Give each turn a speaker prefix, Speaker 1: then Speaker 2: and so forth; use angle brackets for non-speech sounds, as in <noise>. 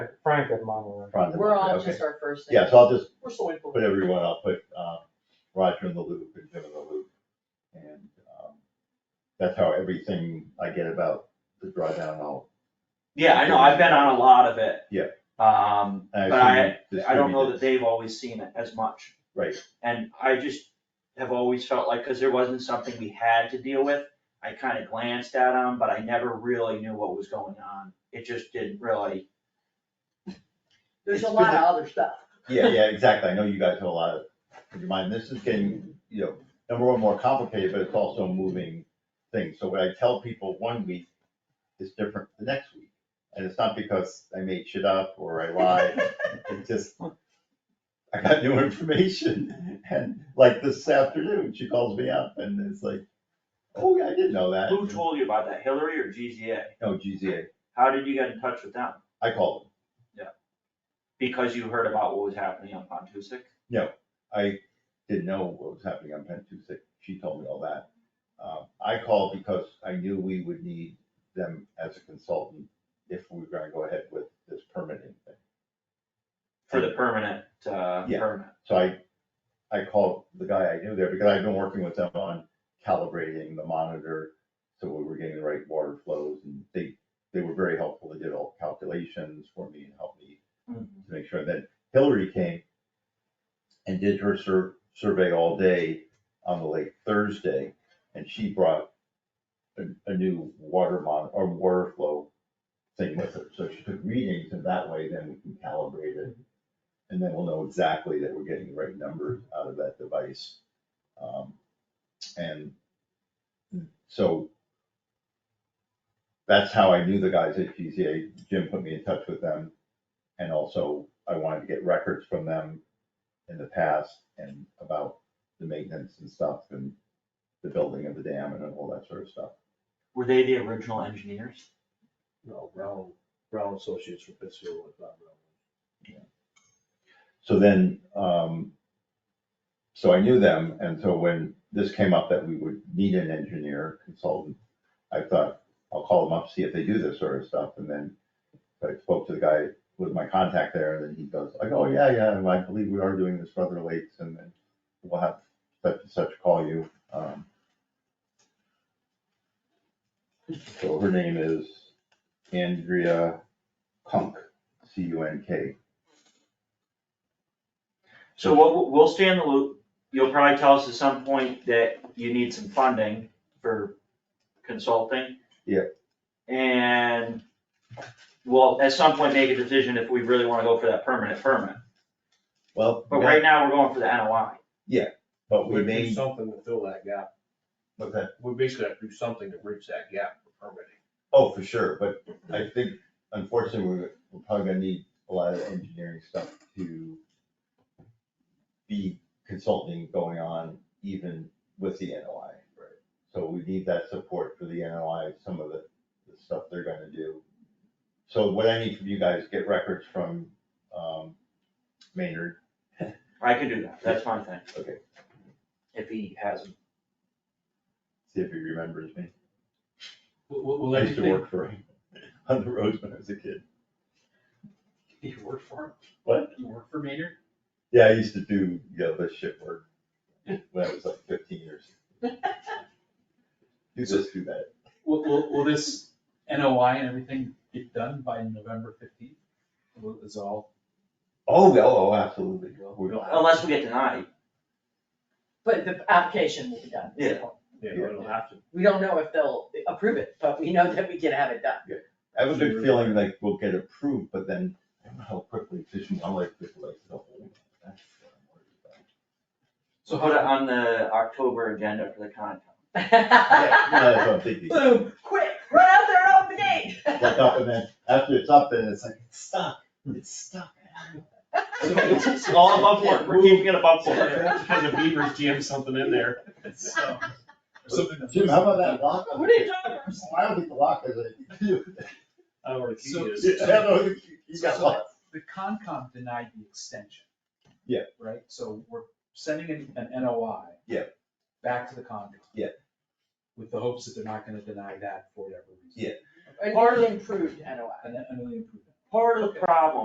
Speaker 1: Frank at Monterey.
Speaker 2: front of
Speaker 3: We're all
Speaker 2: okay.
Speaker 3: just our first names.
Speaker 2: Yeah, so I'll just
Speaker 1: We're so thankful.
Speaker 2: put everyone, I'll put, um, Roger in the loop and Jim in the loop. And, um, that's how everything I get about the drawdown, I'll,
Speaker 4: Yeah, I know, I've been on a lot of it.
Speaker 2: Yeah.
Speaker 4: Um,
Speaker 2: I
Speaker 4: but I,
Speaker 2: assume
Speaker 4: I don't
Speaker 2: distribute
Speaker 4: know
Speaker 2: it.
Speaker 4: that they've always seen it as much.
Speaker 2: Right.
Speaker 4: And I just have always felt like, cause there wasn't something we had to deal with, I kinda glanced at them, but I never really knew what was going on. It just didn't really,
Speaker 3: There's a
Speaker 2: It's
Speaker 3: lot
Speaker 2: been
Speaker 3: of other stuff. <laughs>
Speaker 2: Yeah, yeah, exactly. I know you guys have a lot of, in your mind, this is getting, you know, number one, more complicated, but it's also a moving thing. So what I tell people one week is different the next week. And it's not because I made shit up or I lied. It's just, I got new information. And like this afternoon, she calls me up and it's like, oh, yeah, I didn't know that.
Speaker 4: who told you about that, Hillary or GZA?
Speaker 2: No, GZA.
Speaker 4: How did you get in touch with them?
Speaker 2: I called.
Speaker 4: Because you heard about what was happening on Pontusic?
Speaker 2: I didn't know what was happening on Penn Tuesday. She told me all that. Uh, I called because I knew we would need them as a consultant if we were gonna go ahead with this permitting thing.
Speaker 4: For the permanent, uh,
Speaker 2: Yeah.
Speaker 4: permit.
Speaker 2: So I, I called the guy I knew there because I've been working with them on calibrating the monitor. So we were getting the right water flows and they, they were very helpful. They did all the calculations for me and helped me
Speaker 4: Mhm.
Speaker 2: to make sure. Then Hillary came and did her sur- survey all day on the lake Thursday. And she brought a, a new water mon, or water flow thing with her. So she took readings and that way then we can calibrate it. And then we'll know exactly that we're getting the right numbers out of that device. Um, And so that's how I knew the guys at GZA. Jim put me in touch with them. And also I wanted to get records from them in the past and about the maintenance and stuff and the building of the dam and all that sort of stuff.
Speaker 4: Were they the original engineers?
Speaker 5: No, Brown, Brown Associates from Pittsfield, if not Brown.
Speaker 2: So then, um, so I knew them, and so when this came up that we would need an engineer consultant, I thought, I'll call them up, see if they do this sort of stuff, and then I spoke to the guy with my contact there, and then he goes, like, oh, yeah, yeah, and I believe we are doing this for other lakes, and then we'll have such and such call you. Um, So her name is Andrea Kunk, C U N K.
Speaker 4: So we'll, we'll stay in the loop. You'll probably tell us at some point that you need some funding for consulting.
Speaker 2: Yep.
Speaker 4: And we'll at some point make a decision if we really wanna go for that permanent permit.
Speaker 2: Well,
Speaker 4: But right now, we're going for the NOI.
Speaker 2: but we
Speaker 5: We'd do
Speaker 2: may,
Speaker 5: Something to fill that gap.
Speaker 2: but that,
Speaker 5: We basically have to do something to bridge that gap for permitting.
Speaker 2: oh, for sure, but I think unfortunately, we're, we're probably gonna need a lot of engineering stuff to be consulting going on even with the NOI. Right. So we need that support for the NOI, some of the, the stuff they're gonna do. So what I need from you guys, get records from, um, Maynard,
Speaker 4: I can do that. That's my thing.
Speaker 2: Okay.
Speaker 4: If he hasn't.
Speaker 2: see if he remembers me.
Speaker 6: Will, will, will
Speaker 2: I used to
Speaker 6: everything,
Speaker 2: work for him on the roads when I was a kid.
Speaker 6: <laughs> you work for him?
Speaker 2: What?
Speaker 6: You work for Maynard?
Speaker 2: Yeah, I used to do, you know, the shit work when I was like fifteen years. Do this, do that.
Speaker 6: Will, will, will this NOI and everything get done by November fifteenth? Will this all?
Speaker 2: Oh, yeah, oh, absolutely. We-
Speaker 4: Unless we get denied.
Speaker 3: But the application will be done.
Speaker 4: Yeah.
Speaker 5: Yeah, we don't have to.
Speaker 3: We don't know if they'll approve it, but we know that we can have it done.
Speaker 2: I have a good feeling like we'll get approved, but then I don't know how quickly fishing wildlife people like the whole. that's what I'm worried about.
Speaker 4: So put it on the October agenda for the Concom.
Speaker 2: Yeah, no, That's what I'm thinking.
Speaker 3: <laughs> Boom, quick, run out there and open the gate.
Speaker 2: Like up and then, after it's up, then it's like, it's stuck, it's stuck.
Speaker 6: So
Speaker 4: It's all above board. We're keeping it above board.
Speaker 5: Because the Beavers jammed something in there.
Speaker 6: <laughs> it's, um, something
Speaker 2: <laughs>
Speaker 6: that-
Speaker 2: Jim, how about that lock?
Speaker 3: <laughs> What are you talking about?
Speaker 2: I don't think the lock is it. <laughs>
Speaker 5: I don't know where the key
Speaker 6: So-
Speaker 5: is.
Speaker 2: Yeah, I don't think You got locked.
Speaker 6: The Concom denied the extension.
Speaker 2: Yeah.
Speaker 6: Right, so we're sending an, an NOI.
Speaker 2: Yeah.
Speaker 6: Back to the Concom.
Speaker 2: Yeah.
Speaker 6: With the hopes that they're not gonna deny that for whatever
Speaker 2: Yeah.
Speaker 6: reason.
Speaker 3: An improved NOI.
Speaker 6: And then, and then they approve it.
Speaker 4: part of the problem